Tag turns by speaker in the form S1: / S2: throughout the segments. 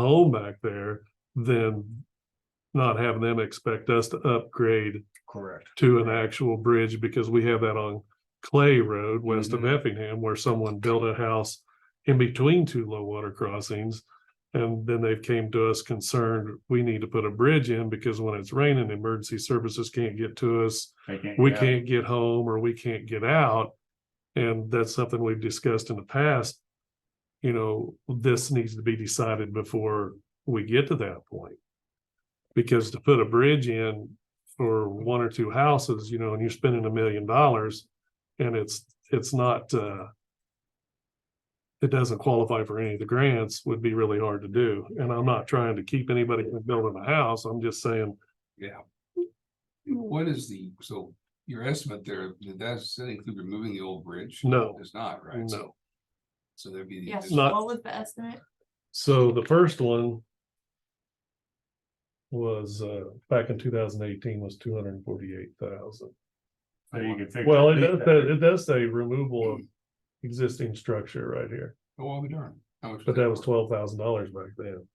S1: home back there than not having them expect us to upgrade
S2: Correct.
S1: to an actual bridge because we have that on Clay Road west of
S2: Mhm.
S1: Effingham where someone built a house in between two low water crossings. And then they've came to us concerned, we need to put a bridge in because when it's raining, emergency services can't get to us.
S2: They can't
S1: We
S2: get out.
S1: can't get home or we can't get out. And that's something we've discussed in the past. You know, this needs to be decided before we get to that point. Because to put a bridge in for one or two houses, you know, and you're spending a million dollars and it's, it's not, uh, it doesn't qualify for any of the grants would be really hard to do. And I'm not trying to keep anybody from building a house. I'm just saying
S3: What is the, so your estimate there, did that, does that include removing the old bridge?
S1: No.
S3: It's not, right? So-
S1: no.
S3: So there'd be. the
S4: Yes,
S3: addition-
S1: Not-
S4: what was the estimate?
S1: So the first one was uh back in two thousand eighteen was two hundred and forty-eight thousand.
S2: So you can figure.
S1: Well, it does, it does say removal of existing structure right here,
S3: Oh, I'll be darned. How much
S1: but that was
S3: cost?
S1: twelve thousand dollars back then.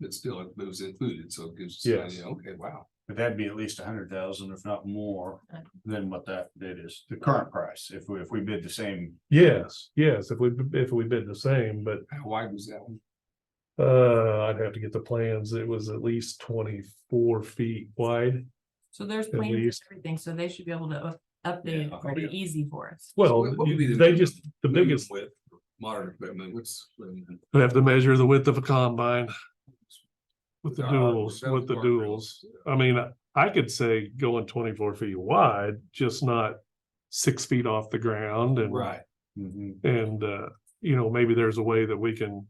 S3: But still, it was included, so it gives. us an
S1: Yes.
S3: idea. Okay, wow.
S2: But that'd be at least a hundred thousand, if not more,
S4: Right.
S2: than what that, that is, the current price, if we, if we bid the same.
S1: Yes, yes, if we, if we bid the same, but
S3: How wide was that one?
S1: uh I'd have to get the plans. It was at least twenty-four feet wide.
S4: So there's
S1: At
S4: plans and
S1: least.
S4: everything, so they should be able to up- update
S3: Yeah.
S4: it pretty easy for us.
S1: Well,
S3: What- what would be the
S1: they
S3: minimum-
S1: just, the
S3: minimum
S1: biggest,
S3: width for Modern equipment, what's?
S1: we have to measure the width of a combine. With the duels, with the duels. I mean, I- I could say going twenty-four feet wide, just not six feet off the ground and.
S3: Right,
S2: Mhm.
S1: And, uh, you know, maybe there's a way that we can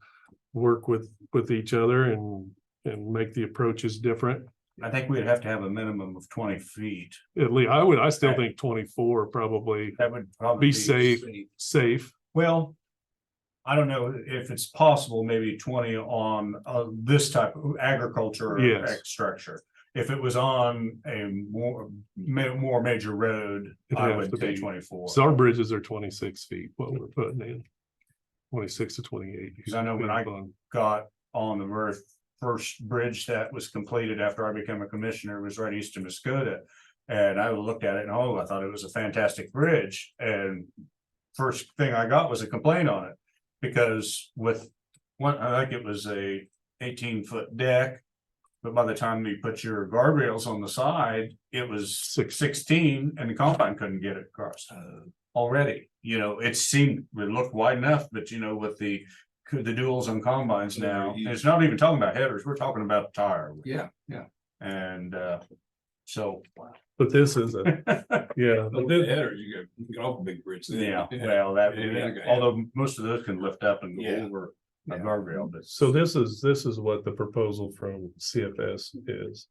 S1: work with, with each other and, and make the approaches different.
S2: I think we'd have to have a minimum of twenty feet,
S1: At least, I would, I still
S2: Okay.
S1: think twenty-four probably
S2: that would probably.
S1: Be safe. safe.
S2: Well, I don't know if it's possible, maybe twenty on uh this type of agriculture
S1: Yes.
S2: ag structure. If it was on a more ma- more major road,
S1: It'd
S2: I
S1: have
S2: would
S1: to
S2: say
S1: be-
S2: twenty four.
S1: So our bridges are twenty-six feet, what we're putting in. Twenty-six to twenty-eight.
S2: Because I know when I- Got on the very first bridge that was completed after I became a commissioner was right east of Muskota. And I looked at it and oh, I thought it was a fantastic bridge and first thing I got was a complaint on it. Because with one, I think it was a eighteen foot deck. But by the time you put your guardrails on the side, it was
S1: Six.
S2: sixteen and the combine couldn't get it across
S3: Uh,
S2: already. You know, it seemed, it looked wide enough, but you know, with the, the duels on combines now, it's not even talking about headers, we're talking about tire.
S3: yeah, yeah.
S2: And, uh, so,
S1: But this is a, yeah,
S3: But
S1: but
S3: the
S1: this,
S3: header, you get, you get off a big bridge. there.
S2: yeah, well, that,
S3: Yeah, yeah.
S2: although most of those can lift up and go
S3: Yeah.
S2: over a
S3: Yeah.
S2: guardrail, but.
S1: So this is, this is what the proposal from CFS is.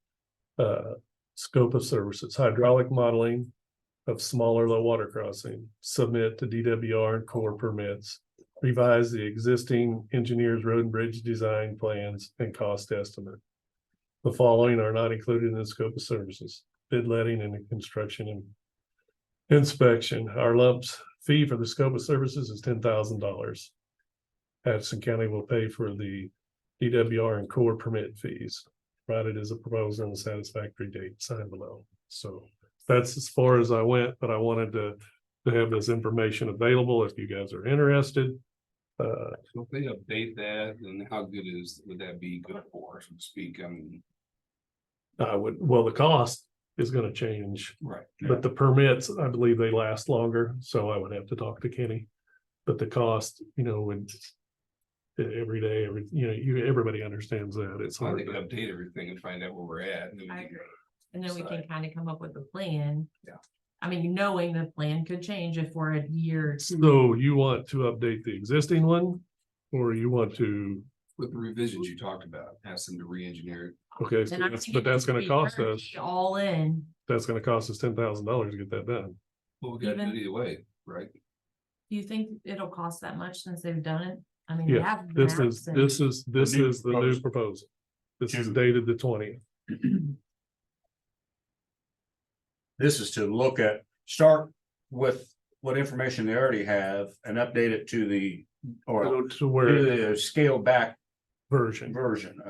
S1: Uh, scope of services, hydraulic modeling of smaller low water crossing, submit to DWR and core permits. Revise the existing engineers road and bridge design plans and cost estimate. The following are not included in the scope of services, bid letting and construction and. Inspection, our lumps fee for the scope of services is ten thousand dollars. Patterson County will pay for the DWR and core permit fees, provided as a proposal and satisfactory date signed below. So that's as far as I went, but I wanted to, to have this information available if you guys are interested. Uh,
S3: So if they update that, then how good is, would that be good for, so to speak, I mean,
S1: I would, well, the cost is gonna change,
S3: right?
S1: but the permits, I believe they last longer, so I would have to talk to Kenny. But the cost, you know, would every day, every, you know, you, everybody understands that. It's
S3: I
S1: hard.
S3: think
S1: to-
S3: update everything and find out where we're at. and then we
S4: I
S3: can-
S4: agree. And then we can
S3: Sorry.
S4: kind of come up with a plan.
S3: Yeah.
S4: I mean, knowing the plan could change if we're a year or two.
S1: So you want to update the existing one? Or you want to,
S3: With the revisions you talked about, ask them to re-engineer.
S1: okay, so
S4: And I
S1: that's-
S4: think
S1: but
S4: it
S1: that's
S4: could
S1: gonna
S4: be
S1: cost
S4: 30
S1: us,
S4: All in,
S1: that's gonna cost us ten thousand dollars to get that done.
S3: Well, we gotta do
S4: Even-
S3: it either way, right?
S4: do you think it'll cost that much since they've done it? I mean,
S1: Yeah,
S4: we have.
S1: This
S4: maps
S1: is,
S4: and-
S1: this is, this
S2: new
S1: is the new proposal. This is
S2: Two.
S1: dated the twentieth.
S2: This is to look at, start with what information they already have and update it to the, or
S1: To
S2: to
S1: where
S2: the scale back
S1: version.
S2: version